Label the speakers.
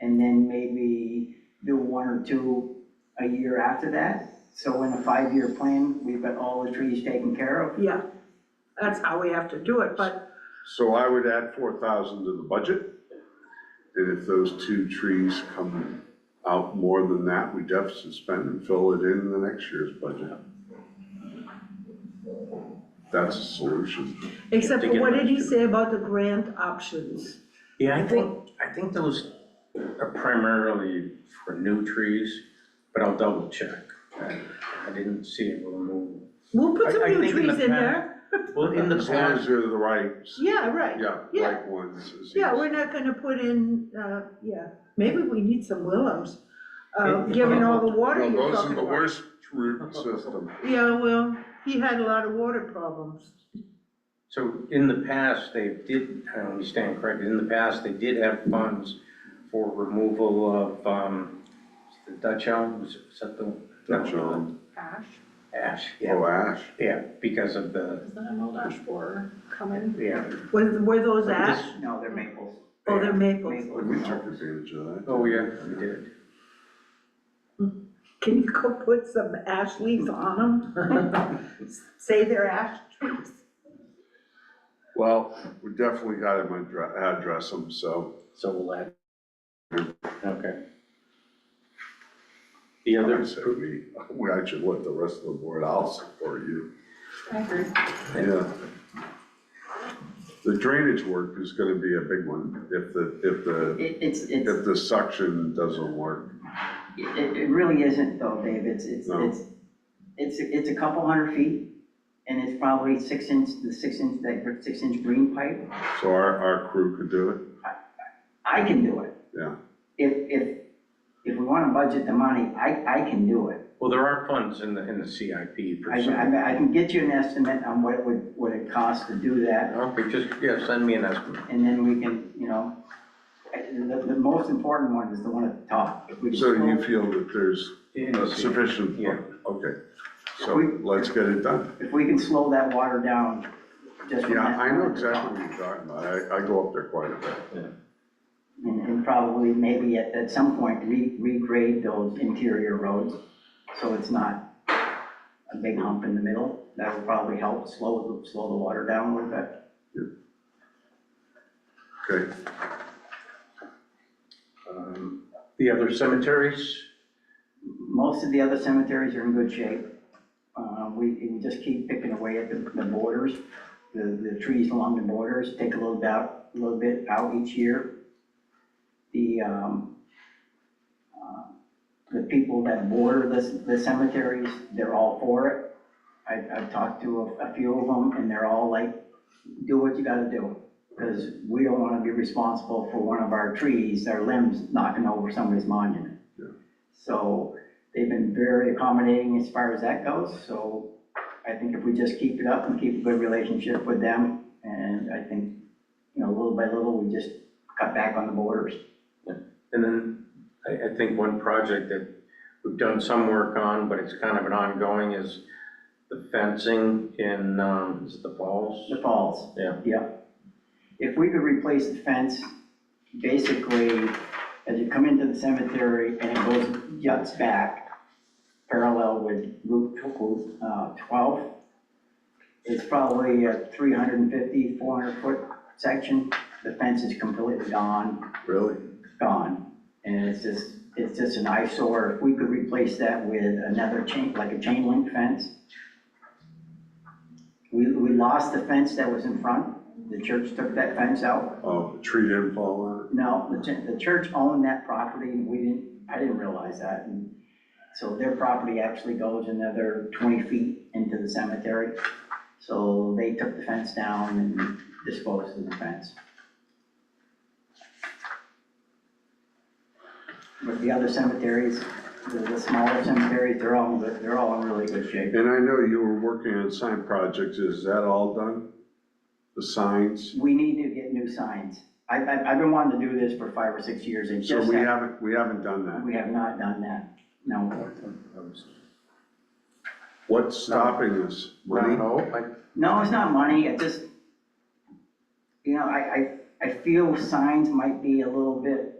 Speaker 1: and then maybe do one or two a year after that. So in a five-year plan, we've got all the trees taken care of.
Speaker 2: Yeah, that's how we have to do it, but
Speaker 3: So I would add four thousand to the budget. And if those two trees come out more than that, we deficit spend and fill it in the next year's budget. That's a solution.
Speaker 2: except
Speaker 4: They
Speaker 2: for
Speaker 4: get
Speaker 2: what
Speaker 4: it
Speaker 2: did he
Speaker 4: last
Speaker 2: say about the grant options?
Speaker 4: Yeah, I think, I think those are primarily for new trees, but I'll double check. I I didn't see it remove.
Speaker 2: We'll
Speaker 4: I-
Speaker 2: put some
Speaker 4: I
Speaker 2: new
Speaker 4: think in the
Speaker 2: trees in
Speaker 4: past-
Speaker 2: there.
Speaker 4: Well, in the
Speaker 3: As long as
Speaker 4: past,
Speaker 3: they're the right, s-
Speaker 2: Yeah, right.
Speaker 3: yeah,
Speaker 2: Yeah.
Speaker 3: right ones. is
Speaker 2: Yeah,
Speaker 3: easy.
Speaker 2: we're not gonna put in, uh, yeah, maybe we need some willows, uh,
Speaker 4: It-
Speaker 2: given all the water
Speaker 3: No,
Speaker 2: you're
Speaker 3: those are
Speaker 2: talking
Speaker 3: the
Speaker 2: about.
Speaker 3: worst root system.
Speaker 2: Yeah, well, he had a lot of water problems.
Speaker 4: so in the past, they did, I understand correctly, in the past, they did have funds for removal of, um, the Dutch elm, was it- was that the?
Speaker 3: Dutch elm.
Speaker 5: ash,
Speaker 4: Ash, yeah,
Speaker 3: Oh, ash.
Speaker 4: yeah, because of the,
Speaker 5: is the emerald ash borer coming?
Speaker 4: yeah.
Speaker 2: Were, were those
Speaker 4: But
Speaker 2: ash?
Speaker 4: this-
Speaker 1: No, they're maples.
Speaker 2: Oh, they're maples.
Speaker 1: Maples.
Speaker 3: We took advantage of that.
Speaker 4: Oh, yeah, we did.
Speaker 2: Can you go put some ash leaves on them? Say they're ash trees.
Speaker 3: Well, we definitely got him address them, so.
Speaker 4: So we'll add. Okay. The
Speaker 3: I
Speaker 4: other,
Speaker 3: said we, we actually let the rest of the board, I'll support you.
Speaker 5: I agree.
Speaker 3: Yeah. The drainage work is gonna be a big one if the, if the,
Speaker 1: It, it's, it's,
Speaker 3: if the suction doesn't work.
Speaker 1: it, it really isn't though, Dave, it's, it's,
Speaker 3: No.
Speaker 1: it's, it's, it's a couple hundred feet, and it's probably six inch, the six inch, that six inch green pipe.
Speaker 3: So our, our crew could do it.
Speaker 1: I can do it.
Speaker 3: Yeah.
Speaker 1: If, if, if we wanna budget the money, I, I can do it.
Speaker 4: well, there are funds in the, in the CIP
Speaker 1: I,
Speaker 4: for some.
Speaker 1: I, I can get you an estimate on what it would, what it costs to do that,
Speaker 4: Okay, just, yeah, send me an estimate.
Speaker 1: and then we can, you know, I- the, the most important one is the one at the top. If we can
Speaker 3: So you
Speaker 1: slow-
Speaker 3: feel that there's a sufficient,
Speaker 4: Yeah.
Speaker 3: okay. So
Speaker 1: We-
Speaker 3: let's get it done.
Speaker 1: If we can slow that water down, just. from
Speaker 3: Yeah,
Speaker 1: that
Speaker 3: I know
Speaker 1: one at the top.
Speaker 3: exactly what you're talking about. I, I go up there quite a bit.
Speaker 1: And, and probably maybe at, at some point, re, regrade those interior roads, so it's not a big hump in the middle. That would probably help slow, the- slow the water down a little bit.
Speaker 3: Okay,
Speaker 4: Um, The other cemeteries,
Speaker 1: Most of the other cemeteries are in good shape. Uh, we, we just keep picking away at the, the borders, the, the trees along the borders, take a little bit out, a little bit out each year. The, um, uh, the people that border the, the cemeteries, they're all for it. I, I've talked to a, a few of them and they're all like, do what you gotta do. Cause we don't wanna be responsible for one of our trees, our limbs knocking over somebody's monument.
Speaker 3: Yeah.
Speaker 1: So they've been very accommodating as far as that goes, so I think if we just keep it up and keep a good relationship with them, and I think, you know, little by little, we just cut back on the borders.
Speaker 4: and then I, I think one project that we've done some work on, but it's kind of an ongoing, is the fencing in, um, is it the falls?
Speaker 1: The falls.
Speaker 4: Yeah.
Speaker 1: Yep. If we could replace the fence, basically, as you come into the cemetery and it goes juts back, parallel with Route tw- uh, twelve, it's probably a 350, 400 foot section. The fence is completely gone,
Speaker 3: really?
Speaker 1: gone. And it's just, it's just an eyesore. If we could replace that with another chain, like a chain link fence, we, we lost the fence that was in front. The church took that fence out.
Speaker 3: Oh, the tree didn't fall on it?
Speaker 1: No, the, ch- the church owned that property and we didn't, I didn't realize that. And so their property actually goes another twenty feet into the cemetery. So they took the fence down and disposed of the fence. But the other cemeteries, the, the smaller cemeteries, they're all, in good- they're all in really good shape.
Speaker 3: And I know you were working on sign projects, is that all done? The signs?
Speaker 1: We need to get new signs. I, I, I've been wanting to do this for five or six years and
Speaker 3: So
Speaker 1: just,
Speaker 3: we
Speaker 1: ha-
Speaker 3: haven't, we haven't done that.
Speaker 1: we have not done that. No,
Speaker 3: What's stopping us?
Speaker 4: No,
Speaker 3: Money?
Speaker 4: no, I-
Speaker 1: no, it's not money, it just, you know, I, I, I feel signs might be a little bit